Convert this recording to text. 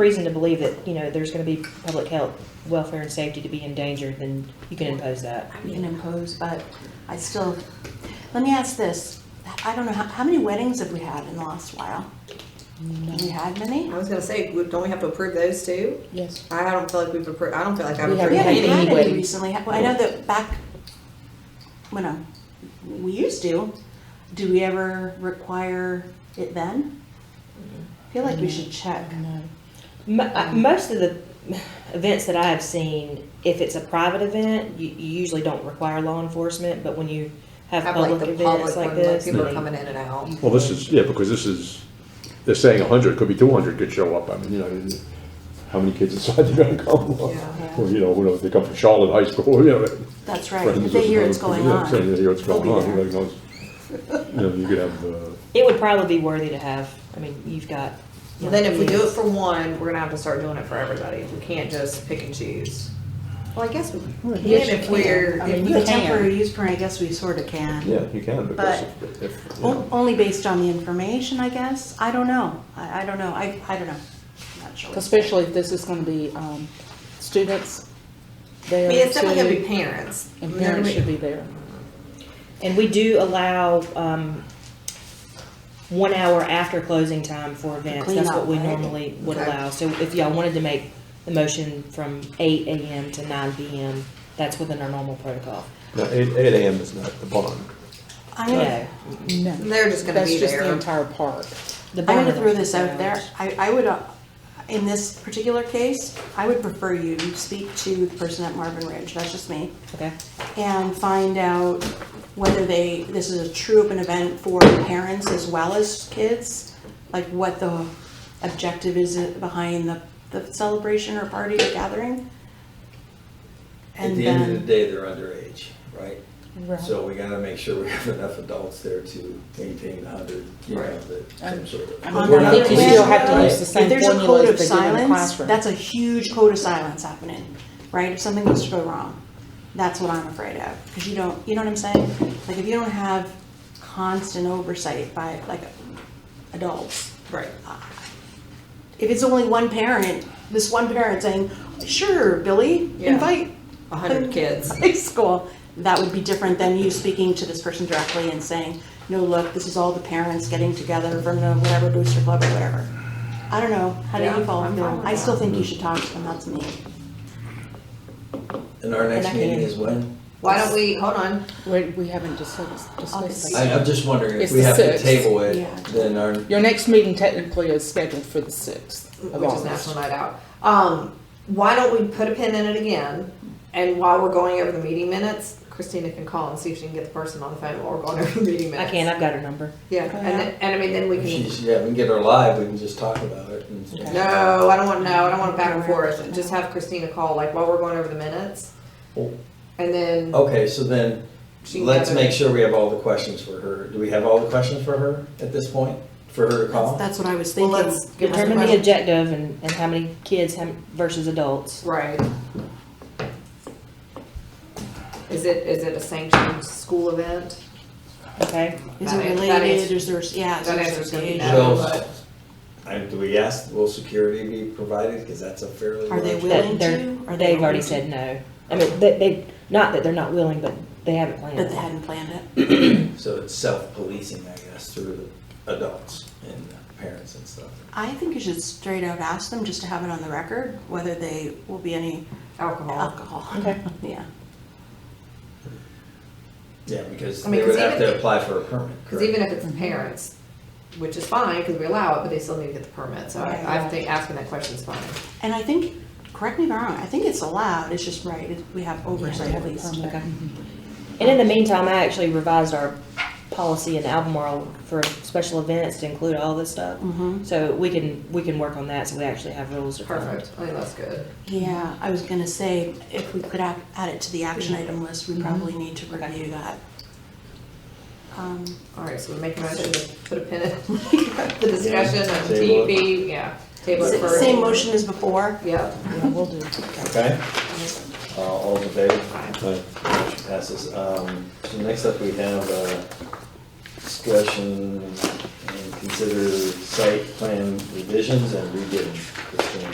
reason to believe that, you know, there's gonna be public health, welfare and safety to be endangered, then you can impose that. You can impose, but I still, let me ask this. I don't know, how, how many weddings have we had in the last while? Have we had many? I was gonna say, we- don't we have to approve those too? Yes. I don't feel like we've approved, I don't feel like I've We approved haven't We haven't had any. had any any weddings. recently. Well, I know that back, when uh, we used to, do we ever require it then? I Feel like we should check. No. Mo- uh, Most of the events that I have seen, if it's a private event, you you usually don't require law enforcement, but when you have Have like public the events public like one, like this. people are they- coming in and out. Well, this is, yeah, because this is, they're saying hundred, could be two hundred could show up, I mean, you know, how many kids decide they're gonna come? Yeah. Or, you know, who knows, they come from Charlotte High School, you know. That's right. friends If they hear of- it's going yeah, on. saying They hear what's they'll going be on, there. who knows? You know, you could have, uh, It would probably be worthy to have, I mean, you've got. you know, Then if we do it kids. for one, we're gonna have to start doing it for everybody. We can't just pick and choose. Well, I guess we can yes, you if can. we're, I if mean, we you The can. temporary use permit, I guess we sort of can. yeah, you can, because But- Oh, if- if, you O- know, Only based on the information, I guess. I don't know. I, I don't know. I, I don't know. Not sure. Especially if this is gonna be, um, students I there mean, it's definitely gonna be too. parents. And parents should be there. And we do allow, um, one hour after closing time for events, that's what we Clean up, right? normally would Okay. allow. So if y'all wanted to make the motion from eight AM to nine PM, that's within our normal protocol. no, eight, eight AM is not the bond. I'm No. gonna, No. They're just gonna That's be just the there. entire park. The I'm gonna bond- throw this out there. I, I would, uh, in this particular case, I would prefer you speak to the person at Marvin Ridge, that's just me, Okay, and find out whether they, this is a true open event for parents as well as kids, like what the objective is behind the, the celebration or party or gathering. At And the end of the then, day, they're underage, right? So we gotta make sure we have enough adults there to maintain the hundred, you know, Right. the some sort of. I But mean, we're I not think you police, still have to right? use the if same there's a formula code that of they do in the silence, classroom. that's a huge code of silence happening, right? If something was to go wrong, that's what I'm afraid of, because you don't, you know what I'm saying? Like, if you don't have constant oversight by, like, adults, ah. Right. if it's only one parent, this one parent saying, sure, Billy, Yeah. invite A hundred kids. high school, that would be different than you speaking to this person directly and saying, no, look, this is all the parents getting together from the whatever booster club or whatever. I don't know, how do Yeah, you follow I'm fine feel? with I still that. think you should talk to them, that's me. And our And I next can- meeting is when? Why don't we, hold on, We, we haven't discussed, discussed I, that. I'm just wondering if It's we the have to sixth. table it, Yeah. then our, Your next meeting technically is scheduled for the sixth of which is National August. Night Out. Um, why don't we put a pin in it again? And while we're going over the meeting minutes, Christina can call and see if she can get the person on the phone while we're going over the meeting I minutes. can, I've got her number. Yeah, and, then- and I mean, then we if can, she's, yeah, we can get her live, we can just talk about it and. Okay. no, I don't want, no, I don't want it back and forth. Just have Christina call, like, while we're going over the minutes. Well- And then Okay, so then, she can Oh, let's gather- make sure we have all the questions for her. Do we have all the questions for her at this point? For her to That's, call? that's what I was Well, thinking. let's give her Determine the question. objective and, and how many kids how m- versus adults. Right. Is it, is it a sanctioned school event? Okay, Is That it is- that related, is- is there, yeah. is that there answer's gonna be association? no, Will, but- and do we ask, will security be provided? Because that's a fairly Are they large- Willing that they're, to, or they they've don't already want to? said no. I mean, they, they, not that they're not willing, but they haven't planned But they it. hadn't planned it. So it's self-policing, I guess, through the adults and the parents and stuff. I think you should straight out ask them, just to have it on the record, whether they will be any Alcohol. alcohol. Okay. Yeah. Yeah, because I mean, they would 'cause have even- to apply for a permit, Because even correct? if it's the parents, which is fine, because we allow it, but they still need to get the permit, so Right, I, I right. think asking that question's fine. And I think, correct me if I'm wrong, I think it's allowed, it's just right, it- we have oversight at least. Okay. And in the meantime, I actually revised our policy in Albemarle for special events to include all this stuff. Mhm. So we can, we can work on that, so we actually have rules defined. Perfect, I think that's good. Yeah, I was gonna say, if we could add, add it to the action item list, we probably need to review that. Um, All right, so we make a motion to put a pin in the discussion on Table it. TV, yeah. Table it sa- for. Same motion as before, Yep. Yeah, we'll do. Okay? Mm-hmm. Uh, all in favor? Aye. Motion Passes. Um, so next up, we have, uh, discussion and consider site plan revisions and rebidding. Christine.